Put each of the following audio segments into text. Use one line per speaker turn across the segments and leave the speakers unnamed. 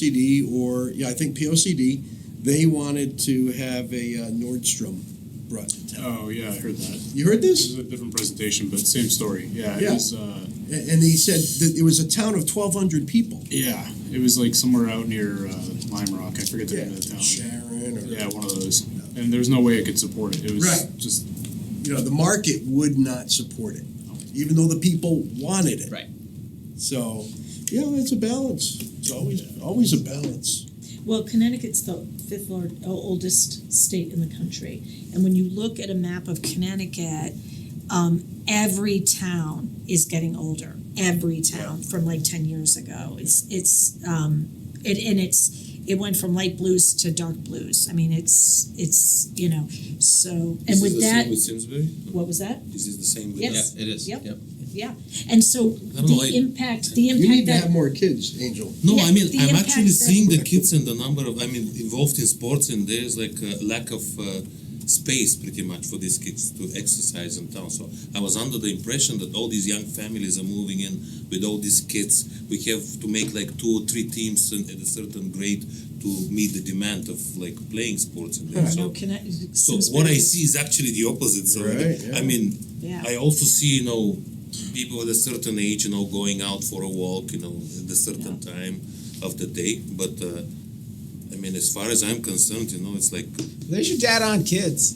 POCD or, yeah, I think POCD, they wanted to have a uh, Nordstrom brought to town.
Oh, yeah, I heard that.
You heard
This
this?
is a different presentation, but same story. Yeah, it
Yeah.
was, uh,
A- And he said that it was a town of twelve hundred people.
yeah, it was like somewhere out near, uh, Lime Rock. I forget the name of the town.
Sharon or,
Yeah, one of those. And there was no way I could support it. It was
Right.
just,
you know, the market would not support it, even though the people wanted it.
Right.
So, yeah, it's a balance. It's always, always a balance.
Well, Connecticut's the fifth lar- o- oldest state in the country. And when you look at a map of Connecticut, um, every town is getting older. Every town from like 10 years ago. It's, it's, um, it, and it's, it went from light blues to dark blues. I mean, it's, it's, you know, so, and
Is
with
this the
that,
same with Simsbury?
what was that?
Is this the same with?
Yes.
Yeah, it is.
Yep. And so
I don't know,
the
I-
impact, the
You need
impact
to have
that,
more kids, Angel.
No,
Yeah,
I mean
the
I'm
impact
actually
that-
seeing the kids and the number of I mean involved in sports and there's like a lack of uh, space pretty much for these kids to exercise in town. So I was under the impression that all these young families are moving in with all these kids. We have to make like two or three teams in, at a certain grade to meet the demand of like playing sports and there.
no,
So,
Connecticut.
so what I see is actually the opposite. So
Right, yeah.
I mean
Yeah.
I also see, you know, people at a certain age, you know, going out for a walk, you know, at a certain time of the day. But uh, I mean, as far as I'm concerned, you know, it's like
There's your dad on kids.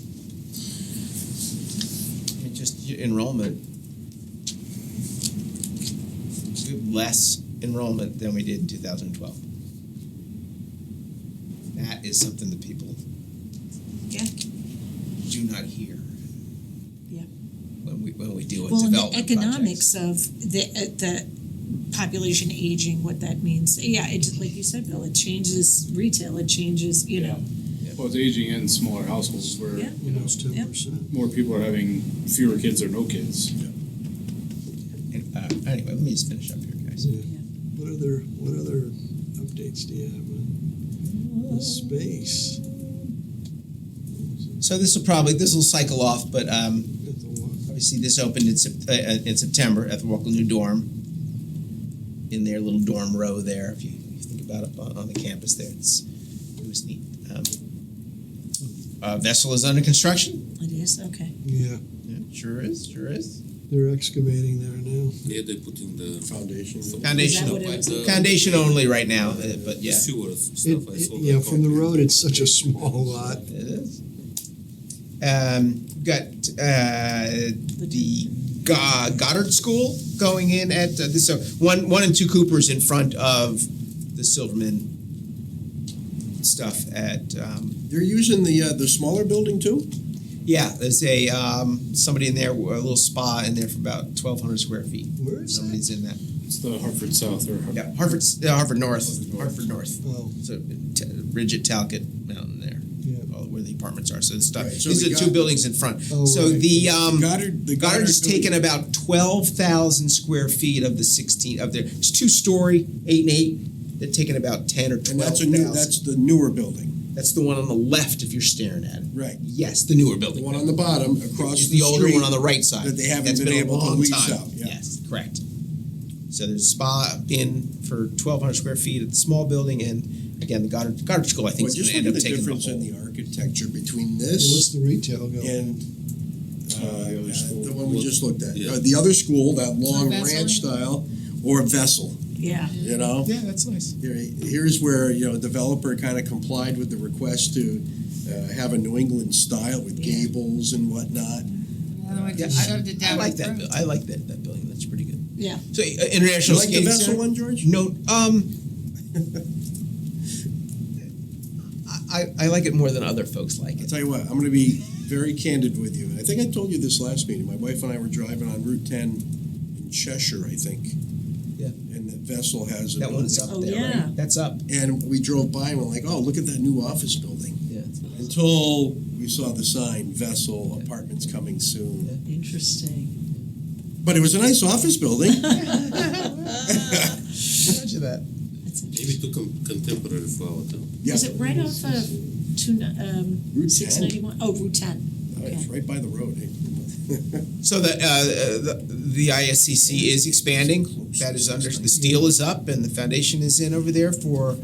And just your enrollment. We have less enrollment than we did in 2012. That is something that people
Yeah.
do not hear.
Yeah.
When we when we deal with
well, and the
development projects.
economics of the uh, the population aging, what that means. Yeah, it just like you said, Bill, it changes retail, it changes, you know.
well, it's aging in smaller households where,
Yeah.
you know,
Yep.
percent.
more people are having fewer kids or no kids.
And, uh, anyway, let me just finish up here, guys.
What other what other updates do you have on the space?
So this will probably this will cycle off, but um,
At the walk.
Obviously, this opened in, Sep- uh, uh, in September at the Walkle New Dorm, in their little dorm row there. If you, you think about it on, on the campus there, it's, it was neat. Um, uh, vessel is under construction.
It is, okay.
Yeah,
Yeah, sure is, sure is.
they're excavating there now.
yeah, they're putting the
Foundation.
Foundation,
what it
like
is?
the,
foundation only right now, uh, but
the
yeah,
sewer stuff.
It,
I saw
it-
that
yeah, from the
copy.
road, it's such a small lot.
it is. Um, got uh, the Go- Goddard School going in at uh, this. So one, one, and two Coopers in front of the Silverman stuff at. Um,
They're using the, uh, the smaller building too?
yeah, there's a um, somebody in there, a little spa in there for about twelve hundred square feet.
Where is that?
Somebody's in that.
It's the Hartford South or.
Yeah, Harvard, uh, Harvard North, Harvard North.
Oh,
So t- Ridget Talcott Mountain there,
yeah.
all where the apartments are. So the stuff.
Right, so
These
the
are the
Go-
two buildings in front.
Oh,
so
right.
the um,
Goddard, the Goddard.
Goddard's
building.
taken about twelve thousand square feet of the sixteen of their. It's two story, eight and eight. They're taking about ten or
And
twelve
that's a new,
thousand.
that's the newer building,
That's the one on the left if you're staring at it.
right.
Yes, the newer
The
building.
one on the bottom across
It's
the
the, older
street.
one on the right side.
that they haven't
That's
been
a
able to
long
lease
time.
out, yeah.
Yes, correct. So there's a spa in for twelve hundred square feet at the small building, and again the Goddard Goddard School I think
Well,
is going
just
to
look
end
at
up
the
taking
difference
the whole.
in the architecture between
Hey, what's
this
the retail going?
and, uh,
Uh, the other
uh,
school.
the one we just looked at.
Yeah.
Uh, The other school, that long
Vessel.
ranch style, or Vessel,
Yeah.
you know?
yeah, that's nice.
Here- Here's where, you know, developer kind of complied with the request to uh, have a New England style with
Yeah.
gables and whatnot.
Yeah,
I go to
I
Downey
like that.
Brook.
bu- I like that that building. That's pretty good.
Yeah.
So uh,
Do you
international
like the
skating
Vessel
center.
one, George?
No, um, I, I like it more than other folks like
I'll
it.
tell you what, I'm going to be very candid with you. I think I told you this last meeting. My wife and I were driving on Route 10 in Cheshire, I think.
Yeah.
And that Vessel has a
That one's up
building.
Oh,
there,
yeah.
right? That's up.
And we drove by and we're like, oh, look at that new office building.
Yeah.
Until we saw the sign, Vessel Apartments coming soon.
Interesting.
But it was a nice office building.
Imagine that.
That's
Maybe
interesting.
too com- contemporary for our town.
Yeah.
Is it right off of two, ni- um,
Route 10.
691? Oh, Route ten.
Oh, It's right by the road. eh?
So the, uh, uh, the the ISCC is expanding. That is under the steel is up and the foundation is in over there for